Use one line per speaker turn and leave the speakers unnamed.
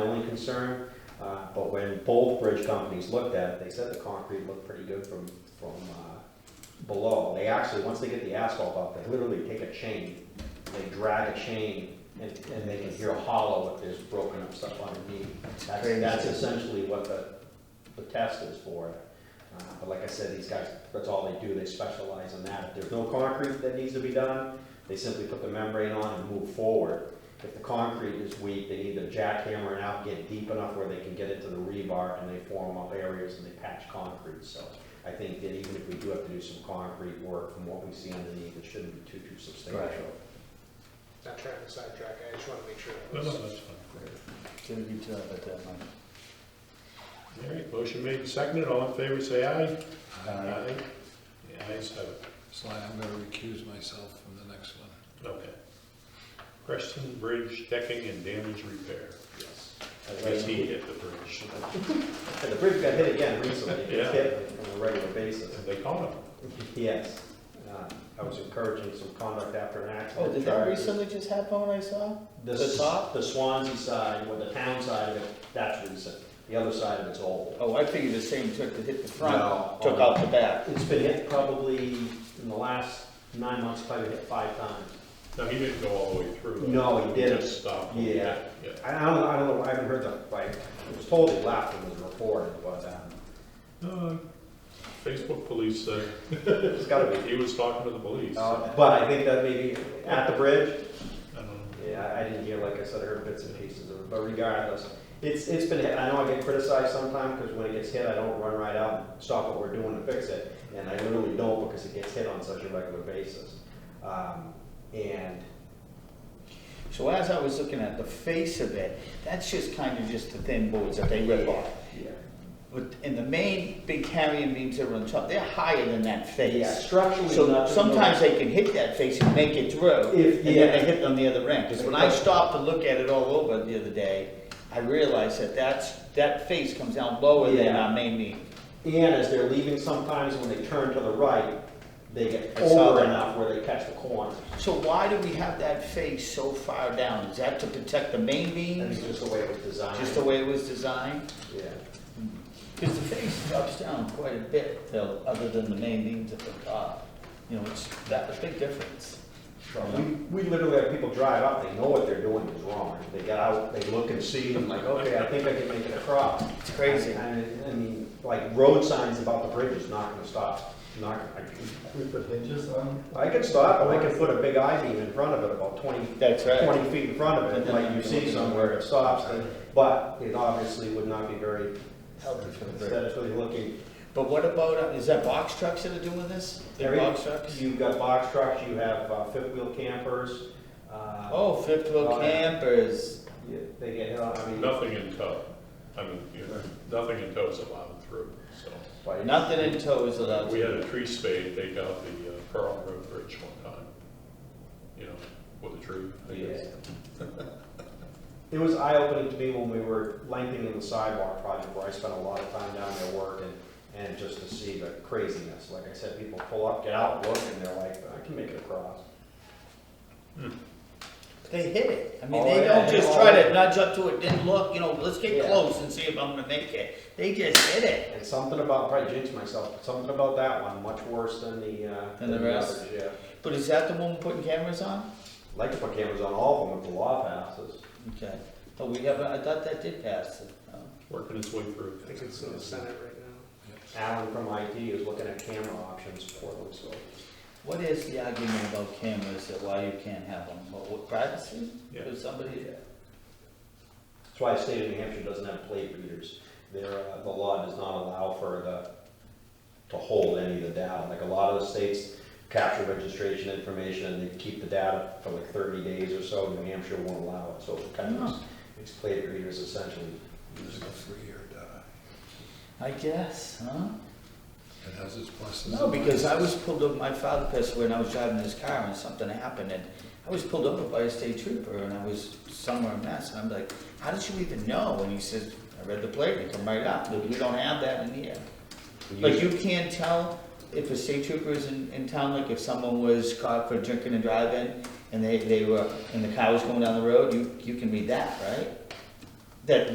concern. Uh, But when both bridge companies looked at it, they said the concrete looked pretty good from, from uh, below. They actually, once they get the asphalt up, they literally take a chain, they drag a chain, and, and they can hear hollow if there's broken up stuff underneath. That's, that's essentially what the, the test is for. Uh, But like I said, these guys, that's all they do, they specialize in that. If there's no concrete that needs to be done, they simply put the membrane on and move forward. If the concrete is weak, they either jackhammer it out, get deep enough where they can get into the rebar, and they form up areas and they patch concrete. So I think that even if we do have to do some concrete work, from what we see underneath, it shouldn't be too, too substantial.
Not trying to sidetrack, I just want to make sure. it
No,
was-
no, that's fine.
Did a good job at that one.
All right, motion made and seconded, all in favor, say aye.
Uh,
The ayes have it,
So I- I'm gonna recuse myself from the next one.
okay. Preston Bridge decking and damage repair.
Yes.
I guess he hit the bridge,
And the bridge got hit again recently, it gets
Yeah.
hit on a regular basis.
they caught him.
Yes, Uh, I was encouraging some conduct after an accident.
Oh, did that
charges.
recently just happen when I saw?
The
The
s-
top?
The Swansea side, or the town side of it, that's recent. The other side of it's old.
Oh, I figured the same took to hit the
No.
front, took out the back.
It's been hit probably in the last nine months, probably hit five times.
No, he didn't go all the way through. though.
No, he didn't.
Just stopped.
Yeah.
Yeah.
I I don't, I don't know, I haven't heard the, like, it was told he left and was reported, but, um,
Uh, Facebook police said,
it's gotta be.
he was talking to the police.
Oh,
I
Uh, But I think that maybe at the bridge,
don't know.
Yeah, I didn't hear, like I said, I heard bits and pieces of it, but regardless, it's, it's been, hit. I know I get criticized sometimes, because when it gets hit, I don't run right out and stop what we're doing to fix it, and I literally don't, because it gets hit on such a regular basis. Um, And,
So as I was looking at the face of it, that's just kind of just the thin boards that they rip off.
yeah,
But, and the main big carrying beams that are on top, they're higher than that
yeah,
face.
structurally.
So
not-
sometimes they can hit that face and make it through,
If-
and then
yeah.
they hit on the other end. Because when I stopped to look at it all over the other day, I realized that that's, that face comes down lower than
Yeah.
our main beam.
And as they're leaving, sometimes when they turn to the right, they get
I saw
over
that.
enough where they catch the corners.
So why do we have that face so far down? Is that to protect the main
And
beams,
it's just the way it was designed.
just the way it was designed?
Yeah.
Because the face drops down quite a bit, though, other than the main beams at the top. You know, it's, that's a big difference.
So We, we literally have people drive up, they know what they're doing is wrong. They get out, they look and see, and like, okay, I think I can make it across.
It's crazy.
I mean, I mean, like road signs about the bridge is not gonna stop, not, I,
We put hinges on,
I can stop, and I can put a big I-beam in front of it, about twenty,
That's right.
twenty feet in front of it, like you see somewhere it stops, then- but it obviously would not be very
Healthy for the bridge.
aesthetically looking.
But what about, uh, is that box trucks that are doing this? They're
Every-
box trucks?
You've got box trucks, you have uh, fifth-wheel campers, uh.
Oh, fifth
Oh,
wheel
yeah.
campers.
yeah, They get, hit on, I mean.
Nothing in tow. I mean, you know, nothing in tow is allowed through, so.
but-
Nothing in tow is allowed.
We had a tree spade take out the uh, Pearl Road Bridge one time, you know, with a tree, I guess.
It was eye-opening to me when we were lengthening the sidewalk project, where I spent a lot of time down there working, and just to see the craziness, like I said, people pull up, get out, look, and they're like, I can make it across.
They hit it. I mean,
Oh,
they
yeah,
don't
they
just
all-
try to nudge up to it, then look, you know, let's get
Yeah.
close and see if I'm gonna make it. They just hit it.
And something about, probably jinxed myself, but something about that one, much worse than the, uh.
Than the rest?
others, Yeah,
But is that the one we're putting cameras on?
like to put cameras on all of them if the law passes.
Okay. Oh, we haven't, I thought that did pass. Oh.
working its way through.
I think it's in the Senate right now.
Alan from IT is looking at camera options for them, so.
What is the argument about cameras that why you can't have them? What, what, privacy?
Yeah.
If somebody,
That's why the state of New Hampshire doesn't have plate readers. Their, uh, the law does not allow for the, to hold any of the data. Like a lot of the states capture registration information and they keep the data for like thirty days or so. New Hampshire won't allow it, so it's kind of, it's plate readers essentially.
There's a free or die.
I guess, huh?
It has its pluses.
No,
and
because I
minuses.
was pulled over, my father passed away and I was driving his car and something happened and I was pulled over by a state trooper and I was somewhere in Mass and I'm like, how did you even know? And he says, I read the plate, it come right up, we don't have that in here. Like you can't tell if a state trooper is in, in town, like if someone was caught for drinking and driving and they, they were, and the car was going down the road, you, you can read that, right? That